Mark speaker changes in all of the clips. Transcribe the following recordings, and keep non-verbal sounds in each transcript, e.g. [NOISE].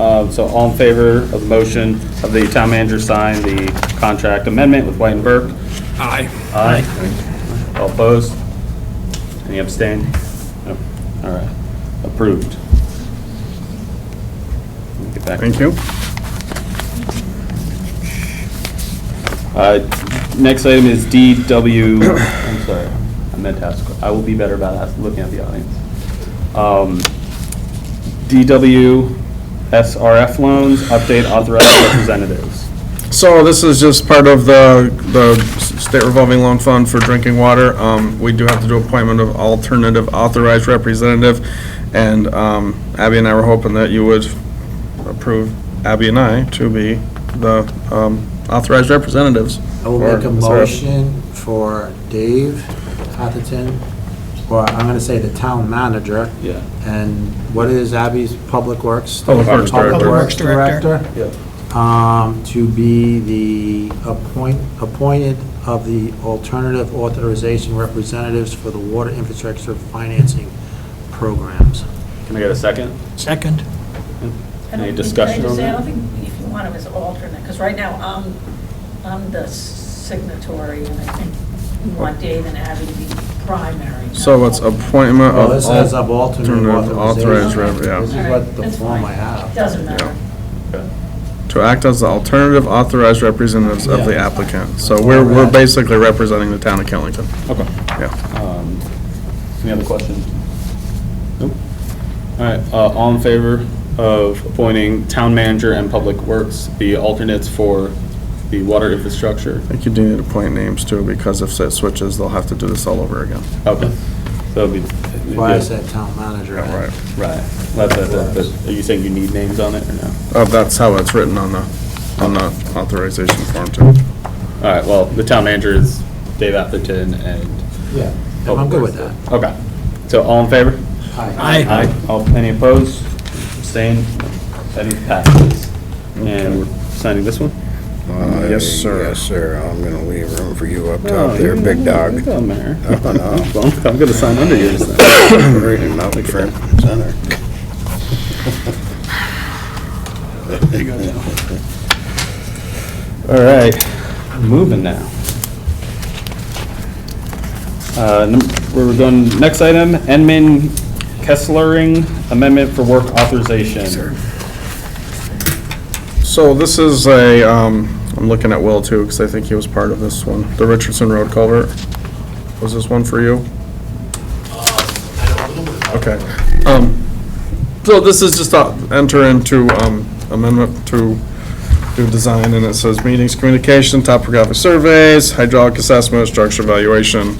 Speaker 1: Um, So all in favor of the motion of the town manager sign the contract amendment with White and Burke?
Speaker 2: Aye.
Speaker 1: Aye. All opposed? Any abstain? No. All right, approved. Get back.
Speaker 3: Thank you.
Speaker 1: Uh, Next item is DW, I'm sorry, I meant to ask, I will be better about ask- looking at the audience. Um, DW SRF loans, update authorized representatives.
Speaker 3: So this is just part of the, the state revolving loan fund for drinking water. Um, we do have to do appointment of alternative authorized representative. And, um, Abby and I were hoping that you would approve Abby and I to be the, um, authorized representatives.
Speaker 4: I will
Speaker 3: for
Speaker 4: make a
Speaker 3: SRF.
Speaker 4: motion for Dave Atherton, or I'm gonna say the town manager,
Speaker 1: Yeah.
Speaker 4: and what is Abby's Public Works?
Speaker 3: Public Works Director.
Speaker 4: Public Works
Speaker 2: Public Works Director.
Speaker 4: Director,
Speaker 1: Yeah.
Speaker 4: um, to be the appoint, appointed of the alternative authorization representatives for the water infrastructure financing programs.
Speaker 1: Can I get a second?
Speaker 2: Second.
Speaker 5: I don't
Speaker 1: Any
Speaker 5: think-
Speaker 1: discussion
Speaker 5: can I just
Speaker 1: on
Speaker 5: say, I
Speaker 1: that?
Speaker 5: don't think if you want him as alternate, because right now, I'm, I'm the signatory, and I think we want Dave and Abby to be primary. not
Speaker 3: So it's
Speaker 5: alternate.
Speaker 3: appointment
Speaker 4: Well,
Speaker 3: of.
Speaker 4: this says
Speaker 3: al-
Speaker 4: of alternate
Speaker 3: alternative
Speaker 4: authorization.
Speaker 3: authorized rep, yeah.
Speaker 4: This is
Speaker 5: All
Speaker 4: what
Speaker 5: right,
Speaker 4: the
Speaker 5: that's
Speaker 4: form I
Speaker 5: fine.
Speaker 4: have.
Speaker 5: Doesn't matter.
Speaker 1: Okay.
Speaker 3: To act as the alternative authorized representatives of the
Speaker 4: Yeah.
Speaker 3: applicant. So we're, we're basically representing the town of Killington,
Speaker 1: Okay.
Speaker 3: yeah.
Speaker 1: Um, Any other questions? Nope. All right, uh, all in favor of appointing town manager and public works, the alternates for the water infrastructure?
Speaker 3: I think you do need to point names too, because if it switches, they'll have to do this all over again.
Speaker 1: Okay, so it'd be.
Speaker 4: Why is that town manager?
Speaker 3: Right.
Speaker 1: Right, that's, that's, but are you saying you need names on it or no?
Speaker 3: Uh, that's how it's written on the, on the authorization form too.
Speaker 1: All right, well, the town manager is Dave Atherton and,
Speaker 4: Yeah, I'm good with that.
Speaker 1: okay. So all in favor?
Speaker 2: Aye.
Speaker 1: All, any opposed? Abstained? Any passes? And we're signing this one?
Speaker 6: Uh,
Speaker 3: Yes, sir.
Speaker 6: Yes, sir. I'm gonna leave room for you up
Speaker 1: Oh,
Speaker 6: top there,
Speaker 1: you're
Speaker 6: big
Speaker 1: not
Speaker 6: dog.
Speaker 1: Big dog, Mayor.
Speaker 6: Oh, no.
Speaker 1: [LAUGHS] Well, I'm gonna sign under yours then.
Speaker 6: [LAUGHS] Read him out front and center.
Speaker 1: [LAUGHS] All right, moving now. Uh, num- We're going, next item, Enman Kesslering Amendment for Work Authorization.
Speaker 3: So this is a, um, I'm looking at Will too, because I think he was part of this one, the Richardson Road culvert. Was this one for you? Okay. Um, so this is just to enter into, um, amendment to do design, and it says meetings, communication, topographic surveys, hydraulic assessment, structure evaluation,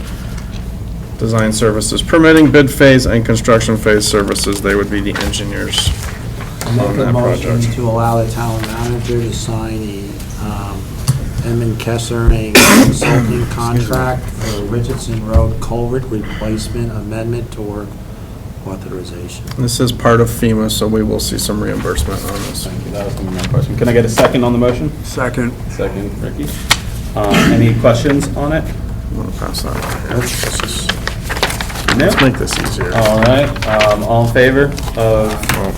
Speaker 3: design services, permitting, bid phase, and construction phase services. They would be the engineers
Speaker 4: I
Speaker 3: on
Speaker 4: Make a
Speaker 3: that
Speaker 4: motion
Speaker 3: project.
Speaker 4: to allow the town manager to sign the um, Emin Kessering
Speaker 3: [COUGHS]
Speaker 4: consulting contract for Richardson Road culvert replacement amendment to work authorization.
Speaker 3: This is part of FEMA, so we will see some reimbursement on this.
Speaker 1: Thank you, that was my question. Can I get a second on the motion?
Speaker 2: Second.
Speaker 1: Second, Ricky. Um, Any questions on it?
Speaker 3: I'm gonna pass that out here. Let's just-
Speaker 1: No?
Speaker 3: let's make this easier.
Speaker 1: All right, um, all in favor of,
Speaker 3: Well,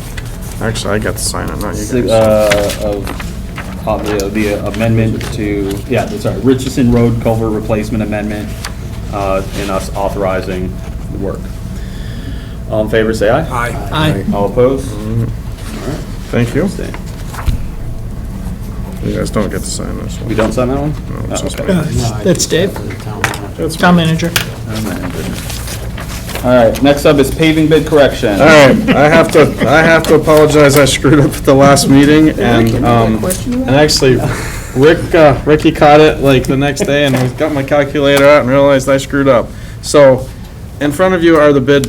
Speaker 3: Actually, I got to sign it, not you
Speaker 1: si-
Speaker 3: guys.
Speaker 1: uh, of, of the- the amendment to, yeah, that's sorry, Richardson Road Culver Replacement Amendment, uh, and us authorizing the work. All in favor, say aye.
Speaker 2: Aye. Aye.
Speaker 1: All opposed?
Speaker 3: Mm-hmm. Thank you.
Speaker 1: Abstain.
Speaker 3: You guys don't get to sign this
Speaker 1: We
Speaker 3: one.
Speaker 1: don't sign that one?
Speaker 3: No, it's
Speaker 1: Oh,
Speaker 3: just
Speaker 1: okay.
Speaker 3: me.
Speaker 4: No, I
Speaker 2: That's
Speaker 4: just
Speaker 2: Dave.
Speaker 4: have the town manager.
Speaker 3: That's
Speaker 2: Town manager.
Speaker 1: All right, next up is paving bid correction.
Speaker 3: All right, I have to, I have to apologize, I screwed up at the last meeting, and, um, and actually, Rick, uh, Ricky caught it like the next day, and I got my calculator out and realized I screwed up. So, in front of you are the bid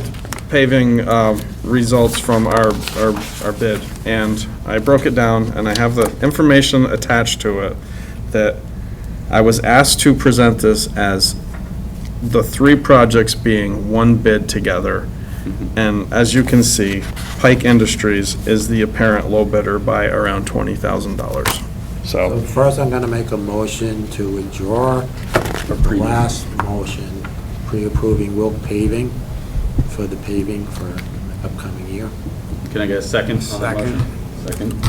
Speaker 3: paving, uh, results from our, our, our bid, and I broke it down, and I have the information attached to it, that I was asked to present this as the three projects being one bid together. And as you can see, Pike Industries is the apparent low bidder by around twenty thousand dollars. So,
Speaker 4: So First, I'm gonna make a motion to withdraw the last motion, pre-approving Wilk paving for the paving for upcoming year.
Speaker 1: Can I get a second on the motion? Second.